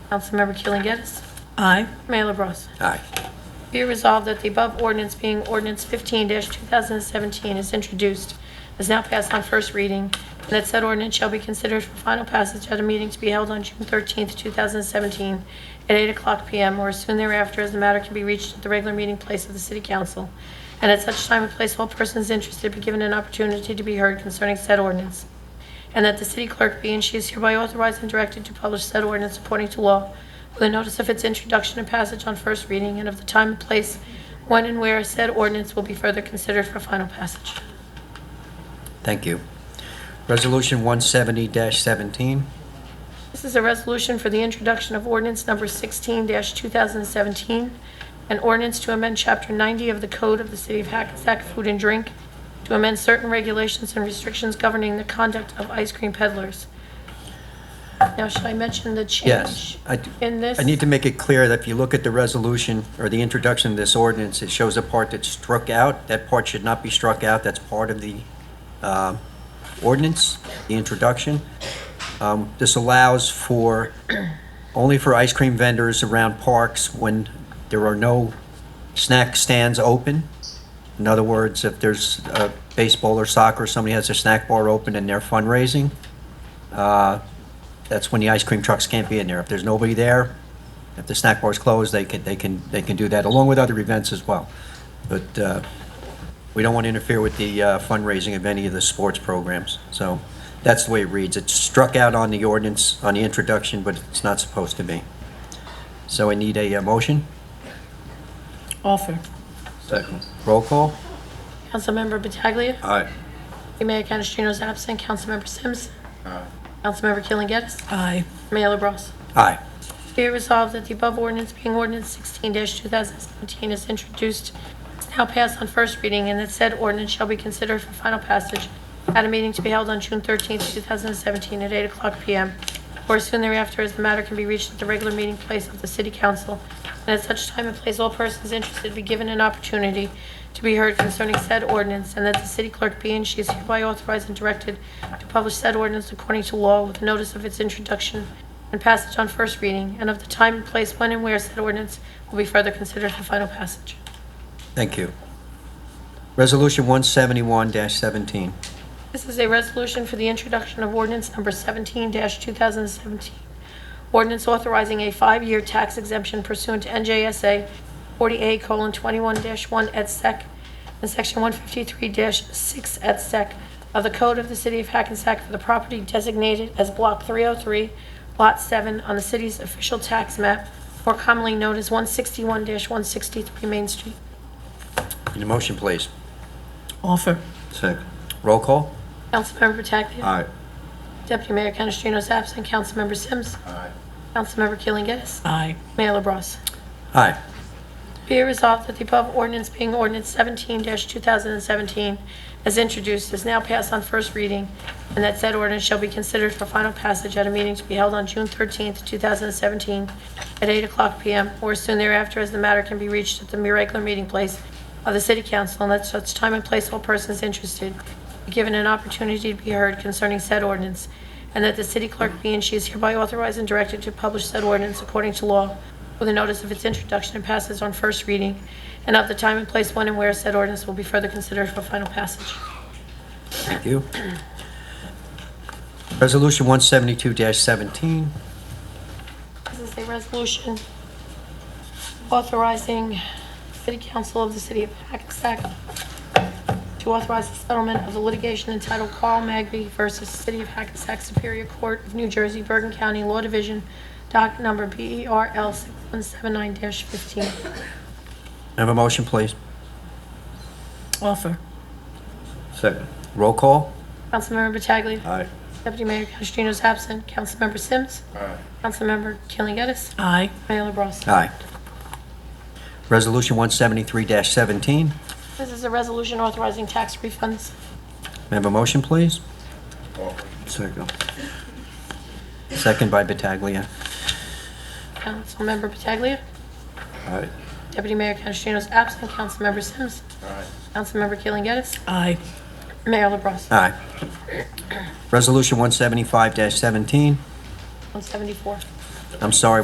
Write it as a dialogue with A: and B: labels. A: Councilmember Keeling Geddis.
B: Aye.
A: Mayor LaBrus.
C: Aye.
A: Be it resolved that the above ordinance being ordinance 15-2017 is introduced, is now passed on first reading, and that said ordinance shall be considered for final passage at a meeting to be held on June 13th, 2017, at 8 o'clock PM or as soon thereafter, as the matter can be reached at the regular meeting place of the city council. And at such time and place, all persons interested be given an opportunity to be heard concerning said ordinance and that the city clerk be and she is hereby authorized and directed to publish said ordinance according to law with a notice of its introduction and passage on first reading and of the time and place when and where said ordinance will be further considered for final passage.
C: Thank you. Resolution 170-17.
A: This is a resolution for the introduction of ordinance number 16-2017, an ordinance to amend Chapter 90 of the Code of the City of Hackensack Food and Drink to amend certain regulations and restrictions governing the conduct of ice cream peddlers. Now, should I mention the
C: Yes.
A: change
C: I d-
A: in this?
C: I need to make it clear that if you look at the resolution or the introduction of this ordinance, it shows a part that's struck out. That part should not be struck out. That's part of the uh, ordinance, the introduction. Um, This allows for, only for ice cream vendors around parks when there are no snack stands open. In other words, if there's uh, baseball or soccer, somebody has a snack bar open and they're fundraising, uh, that's when the ice cream trucks can't be in there. If there's nobody there, if the snack bar's closed, they can, they can, they can do that, along with other events as well. But uh, we don't want to interfere with the uh, fundraising of any of the sports programs. So that's the way it reads. It's struck out on the ordinance, on the introduction, but it's not supposed to be. So I need a uh, motion.
B: Offer.
C: Second. Roll call.
A: Councilmember Pataglia.
C: Aye.
A: Deputy Mayor Canestrino is absent. Councilmember Sims. Councilmember Keeling Geddis.
B: Aye.
A: Mayor LaBrus.
C: Aye.
A: Be it resolved that the above ordinance being ordinance 16-2017 is introduced, is now passed on first reading, and that said ordinance shall be considered for final passage at a meeting to be held on June 13th, 2017, at 8 o'clock p.m., or soon thereafter, as the matter can be reached at the regular meeting place of the city council. And at such time and place, all persons interested be given an opportunity to be heard concerning said ordinance, and that the city clerk be and she is hereby authorized and directed to publish said ordinance according to law with notice of its introduction and passage on first reading, and of the time and place when and where said ordinance will be further considered for final passage.
C: Thank you. Resolution 171-17.
A: This is a resolution for the introduction of ordinance number 17-2017, ordinance authorizing a five-year tax exemption pursuant to NJSA 40A:21-1 et sec. and Section 153-6 et sec. of the Code of the City of Hackensack for the property designated as Block 303, Lot 7 on the city's official tax map, more commonly known as 161-163 Main Street.
C: Need a motion, please.
B: Offer.
C: Second. Roll call.
A: Councilmember Pataglia.
C: Aye.
A: Deputy Mayor Canestrino is absent. Councilmember Sims. Aye. Councilmember Keeling Geddis.
B: Aye.
A: Mayor LaBrus.
C: Aye.
A: Be it resolved that the above ordinance being ordinance 17-2017 as introduced is now passed on first reading, and that said ordinance shall be considered for final passage at a meeting to be held on June 13th, 2017, at 8 o'clock p.m. or soon thereafter, as the matter can be reached at the regular meeting place of the city council, and at such time and place all persons interested be given an opportunity to be heard concerning said ordinance, and that the city clerk be and she is hereby authorized and directed to publish said ordinance according to law with a notice of its introduction and passes on first reading, and of the time and place when and where said ordinance will be further considered for final passage.
C: Thank you. Resolution 172-17.
A: This is a resolution authorizing City Council of the City of Hackensack to authorize the settlement of the litigation entitled Carl Magby versus City of Hackensack Superior Court of New Jersey, Bergen County Law Division, docket number E BERL 6179-15.
C: Have a motion, please.
B: Offer.
C: Second. Roll call.
A: Councilmember Pataglia.
C: Aye.
A: Deputy Mayor Canestrino is absent. Councilmember Sims. Aye. Councilmember Killen Gettis.
B: Aye.
A: Mayor LaBrus.
C: Aye. Resolution 173-17. May
A: This is a resolution authorizing tax refunds.
C: I have a motion, please? Second. Second by Pataglia.
A: Councilmember Pataglia.
C: Aye.
A: Deputy Mayor Canestrino is absent. Councilmember Sims. Aye. Councilmember Killen Gettis.
B: Aye.
A: Mayor LaBrus.
C: Aye. Resolution 175-17.
A: 174.
C: I'm sorry,